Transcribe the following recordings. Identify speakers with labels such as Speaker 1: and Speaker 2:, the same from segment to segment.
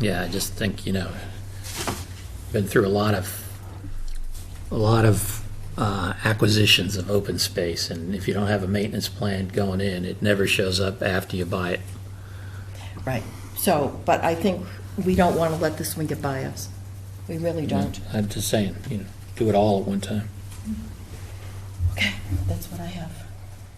Speaker 1: Yeah, I just think, you know, been through a lot of, a lot of uh, acquisitions of open space, and if you don't have a maintenance plan going in, it never shows up after you buy it.
Speaker 2: Right. So, but I think we don't want to let this one get by us. We really don't.
Speaker 1: Mm, I'm just saying, you know, do it all at one time.
Speaker 2: Okay, that's what I have.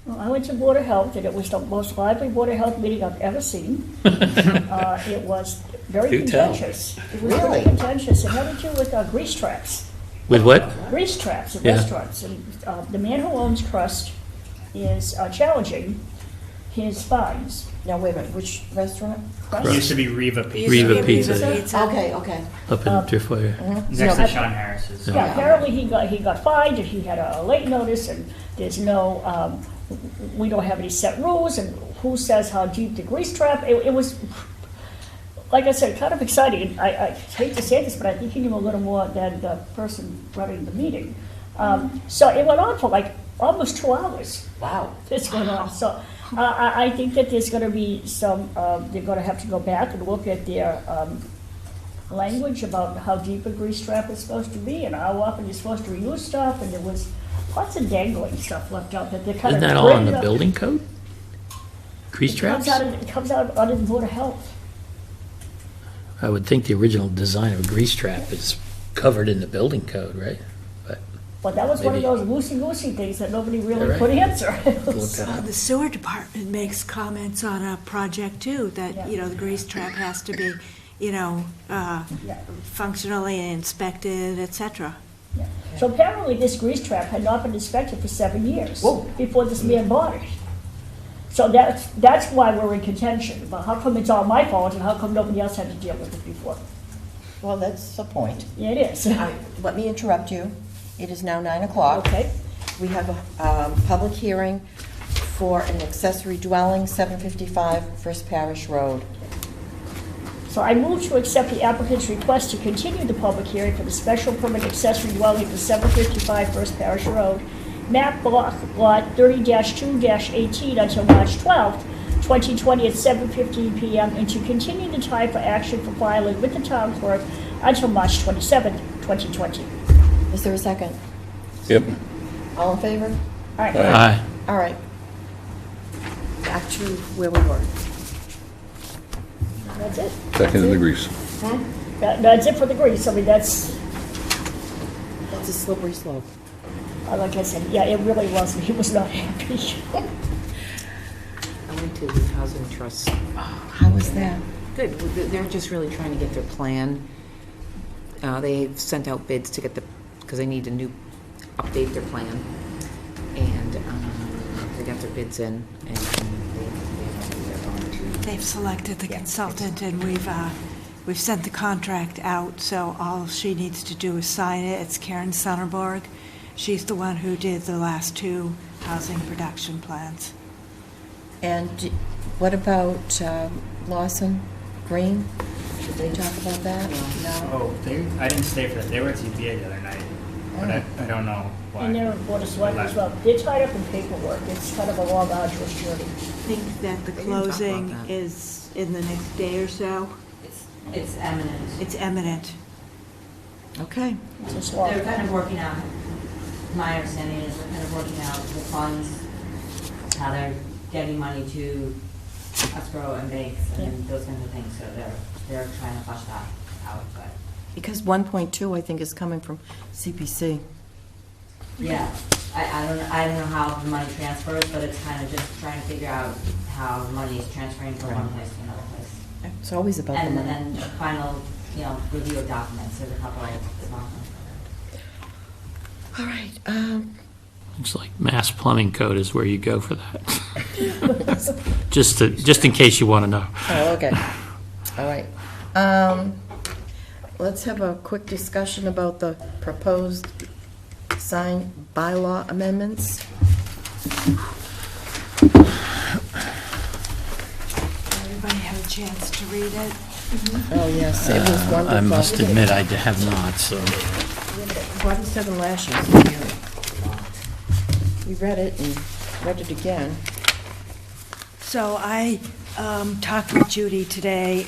Speaker 3: Well, I went to Board of Health, and it was the most lively Board of Health meeting I've ever seen. Uh, It was very
Speaker 1: Do tell.
Speaker 3: contentious. It was very
Speaker 2: Really?
Speaker 3: contentious, it had to do with uh, grease traps,
Speaker 1: With what?
Speaker 3: grease traps in
Speaker 1: Yeah.
Speaker 3: restaurants. And uh, the man who owns Crust is uh, challenging his fines.
Speaker 2: Now, wait a minute, which restaurant?
Speaker 3: Crust-
Speaker 4: It used to be Reva Pizza.
Speaker 1: Riva Pizza, yeah.
Speaker 2: Okay, okay.
Speaker 1: Up in Deerfire.
Speaker 4: Next
Speaker 3: No.
Speaker 4: to Sean Harris's.
Speaker 3: Yeah, apparently he got, he got fined, and he had a late notice, and there's no, um, we don't have any set rules, and who says how deep the grease trap, it, it was, like I said, kind of exciting, I, I hate to say this, but I think he knew a little more than the person running the meeting. Um, so it went on for like almost two hours
Speaker 2: Wow.
Speaker 3: that's going on. So uh, I, I think that there's going to be some, uh, they're going to have to go back and look at their um, language about how deep a grease trap is supposed to be and how often you're supposed to reuse stuff. And there was lots of dangling stuff left out that they're kind
Speaker 1: Isn't
Speaker 3: of.
Speaker 1: that all in
Speaker 3: bringing
Speaker 1: the
Speaker 3: up.
Speaker 1: building code? Crease
Speaker 3: It comes
Speaker 1: traps?
Speaker 3: out, of- it comes out under the Board of Health.
Speaker 1: I would think the original design of a grease trap is covered in the building code, right? But
Speaker 3: But that was one
Speaker 1: Maybe.
Speaker 3: of those loosey-goosey things that nobody
Speaker 1: You're
Speaker 3: really
Speaker 1: right.
Speaker 3: could answer.
Speaker 1: look that up.
Speaker 5: Uh, The sewer department makes comments on a project too,
Speaker 3: Yeah.
Speaker 5: that, you know, the grease trap has to be, you know, uh,
Speaker 3: Yeah.
Speaker 5: functionally inspected, et cetera.
Speaker 3: Yeah. So apparently, this grease trap had not been inspected for seven years
Speaker 2: Whoa.
Speaker 3: before this man bought it. So that's, that's why we're in contention, but how come it's all my fault and how come nobody else had to deal with it before?
Speaker 2: Well, that's the point.
Speaker 3: Yeah, it is.
Speaker 2: I- Let me interrupt you. It is now nine o'clock.
Speaker 3: Okay,
Speaker 2: We have a um, public hearing for an accessory dwelling, 755 First Parish Road.
Speaker 3: so I move to accept the applicant's request to continue the public hearing for the special permit accessory dwelling for 755 First Parish Road, map block lot 30-2-18 until March 12th, 2020 at 7:15 PM, and to continue the time for action for filing with the town clerk until March 27th, 2020.
Speaker 2: Is there a second?
Speaker 6: Yep.
Speaker 2: All in favor?
Speaker 3: All right.
Speaker 1: Aye.
Speaker 2: All right. Back to where we were.
Speaker 3: That's it.
Speaker 6: Second in the grease.
Speaker 3: That- That's it for the grease. I mean, that's,
Speaker 2: That's a slippery slope.
Speaker 3: uh, like I said, yeah, it really was, he was not happy.
Speaker 7: I went to the Housing Trust.
Speaker 2: How was that?
Speaker 7: Good, Well, they're- they're just really trying to get their plan. Uh, They sent out bids to get the, because they need to new, update their plan. And um, they got their bids in, and they're going to,
Speaker 5: They've selected the consultant and we've, uh, we've sent the contract out, so all she needs to do is sign it. It's Karen Sonnenborg. She's the one who did the last two housing production plans.
Speaker 2: And what about um, Lawson Green? Should they talk about that? No?
Speaker 4: Oh, they, I didn't stay for that. They were at TPA the other night, but I, I don't know why.
Speaker 3: And they're in Board of Selectmen as well. They're tied up in paperwork. It's kind of a long, arduous journey.
Speaker 5: I think that the
Speaker 7: didn't talk about
Speaker 5: closing
Speaker 7: that.
Speaker 5: is in the next day or so.
Speaker 8: It's, it's eminent.
Speaker 5: It's imminent.
Speaker 2: Okay.
Speaker 3: It's just long.
Speaker 8: They're kind of working out, my understanding is they're kind of working out the funds, how they're getting money to escrow and banks and those kinds of things, so they're, they're trying to flush that out, but,
Speaker 2: Because 1.2, I think, is coming from CPC.
Speaker 8: yeah. I, I don't, I don't know how the money transfers, but it's kind of just trying to figure out how the money is transferring from one place to another place.
Speaker 2: It's always about the
Speaker 8: And
Speaker 2: money.
Speaker 8: then a final, you know, review of documents, there's a couple of small ones.
Speaker 2: All right. um,
Speaker 1: It's like mass plumbing code is where you go for that. Just to, just in case you want to know.
Speaker 2: Oh, okay. All right. Um, Let's have a quick discussion about the proposed sign bylaw amendments.
Speaker 5: Everybody had a chance to read it.
Speaker 2: Oh, yes, it was wonderful.
Speaker 1: Uh, I must admit, I have not, so.
Speaker 2: 47 lashes. We read it and read it again.
Speaker 5: So I um, talked with Judy today,